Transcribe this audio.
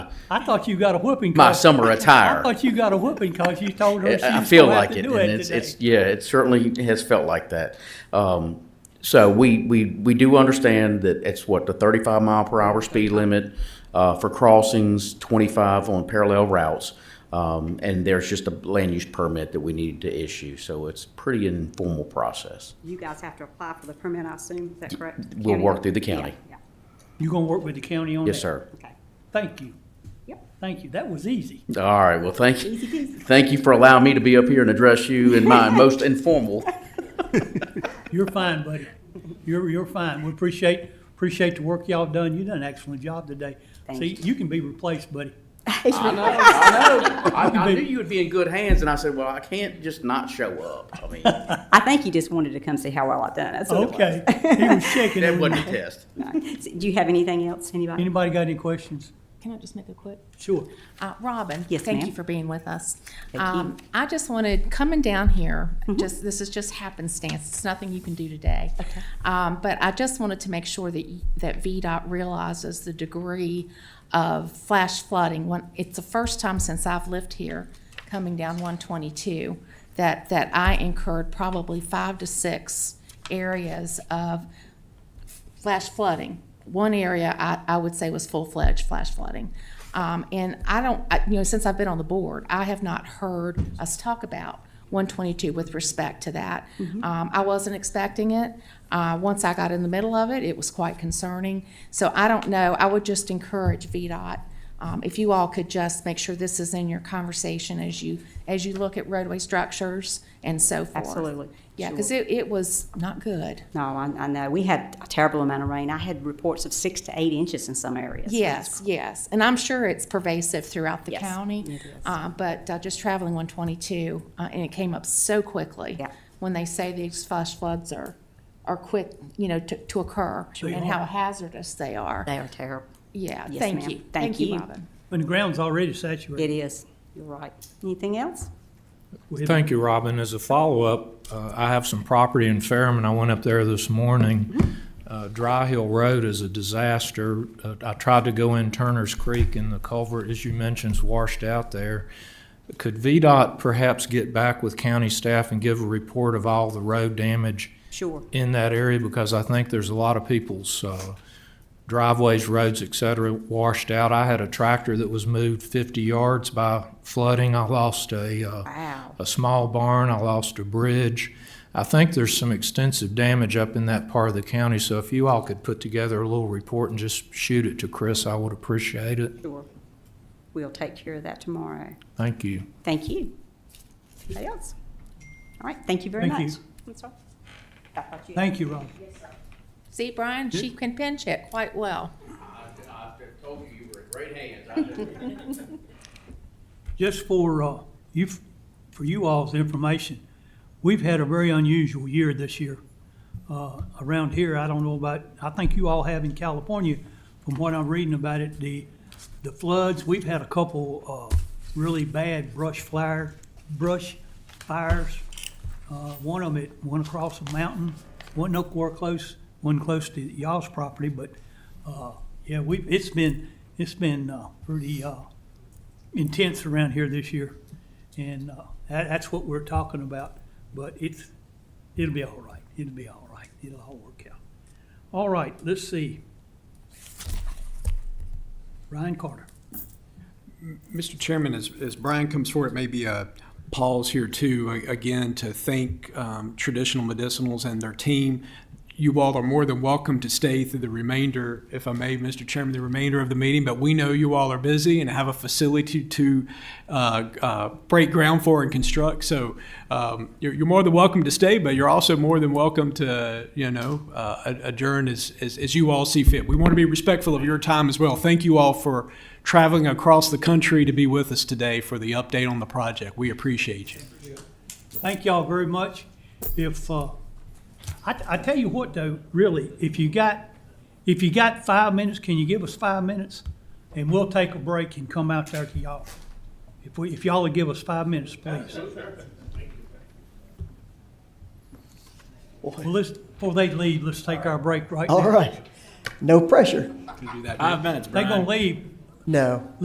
I thought you got a whooping. My 'cause- summer I attire. thought you got a whooping because you told her she was I feel Oh, gonna have like to it, do and it it's, it's, today. yeah, it certainly has felt like that. Um, so we, we, we do understand that it's what, the thirty-five mile per hour speed limit, uh, for crossings, twenty-five on parallel routes. Um, and there's just a land use permit that we need to issue, so it's pretty informal process. You guys have to apply for the permit, I assume, is that correct? We'll County? work through the county. Yeah, You gonna work with the county on that? Yes, sir. yeah, okay. Thank you. Yep. Thank you. That was easy. All right, well, thank you. Easy peasy. Thank you for allowing me to be up here and address you in my most informal. You're fine, buddy. You're, you're fine. We appreciate, appreciate the work y'all done. You done an excellent job today. Thank See, you. you can be replaced, buddy. I know, I know. I, I knew you would be in good hands, and I said, well, I can't just not show up. I mean, that I think you just wanted to come see how well I've done, that's what it was. Okay. He was shaking. wasn't a test. No. Do you have anything else, anybody? Anybody got any questions? Can I just make a quick? Sure. Uh, Robin? Yes, Thank ma'am. you for being with us. Thank you. Mm-hmm. Um, I just wanted, coming down here, just, this is just happenstance, it's nothing you can do today. Okay. Um, but I just wanted to make sure that, y- that VDOT realizes the degree of flash flooding. When, it's the first time since I've lived here, coming down one twenty-two, that, that I incurred probably five to six areas of flash flooding. One area I, I would say was full-fledged flash flooding. Um, and I don't, I, you know, since I've been on the board, I have not heard us talk about one twenty-two with respect to that. Mm-hmm. Um, I wasn't expecting it. Uh, once I got in the middle of it, it was quite concerning. So I don't know, I would just encourage VDOT, um, if you all could just make sure this is in your conversation as you, as you look at roadway structures and so forth. Absolutely. Yeah, because Sure. it, it was not good. No, I, I know, we had a terrible amount of rain, I had reports of six to eight inches in some areas. Yes, yes, and I'm sure it's pervasive throughout the Yes, county. it is. Uh, But uh, just traveling 122, uh, and it came up so quickly. Yeah. When they say these flash floods are, are quick, you know, to, to occur, They and are. how hazardous they are. They are terrible. Yeah, Yes, thank ma'am. you. Thank you. Robin. And the ground's already saturated. It is, you're right. Anything else? We'll- Thank you, Robin. As a follow-up, uh, I have some property in Fairham, I went up there this morning. Uh, Dry Hill Road is a disaster. Uh, I tried to go in Turner's Creek, and the culvert, as you mentioned, is washed out there. Could VDOT perhaps get back with county staff and give a report of all the road damage Sure. in that area? Because I think there's a lot of people's uh, driveways, roads, et cetera, washed out. I had a tractor that was moved 50 yards by flooding. I lost a uh, Wow, a small barn, I lost a bridge. I think there's some extensive damage up in that part of the county, so if you all could put together a little report and just shoot it to Chris, I would appreciate it. sure. We'll take care of that tomorrow. Thank you. Thank you. Anybody else? All right, thank you very Thank you. much. That's all. I thought you- Thank you, Rob. See, Brian, she can pinch it quite well. I told you you were in great hands. Just for, uh, you, for you all's information, we've had a very unusual year this year. Uh, around here, I don't know about, I think you all have in California, from what I'm reading about it, the, the floods, we've had a couple, uh, really bad brush fire, brush fires. Uh, one of them, it went across a mountain, one nowhere close, one close to y'all's property, but, uh, yeah, we, it's been, it's been, uh, pretty, uh, intense around here this year. And uh, that, that's what we're talking about. But it's, it'll be all right. It'll be all right. It'll all work out. All right, let's see. Ryan Carter. Mr. Chairman, as, as Brian comes forward, maybe a pause here too, a- again, to thank um, Traditional Medicinals and their team. You all are more than welcome to stay through the remainder, if I may, Mr. Chairman, the remainder of the meeting, but we know you all are busy and have a facility to uh, uh, break ground for and construct, so um, you're, you're more than welcome to stay, but you're also more than welcome to, you know, uh, ad- adjourn as, as, as you all see fit. We want to be respectful of your time as well. Thank you all for traveling across the country to be with us today for the update on the project. We appreciate you. Thank y'all very much. If, uh, I, I tell you what though, really, if you got, if you got five minutes, can you give us five minutes? And we'll take a break and come out there to y'all. If we, if y'all would give us five minutes, please. Well, let's, before they leave, let's take our break right now. All right. No pressure. Can do that. They're gonna leave. No.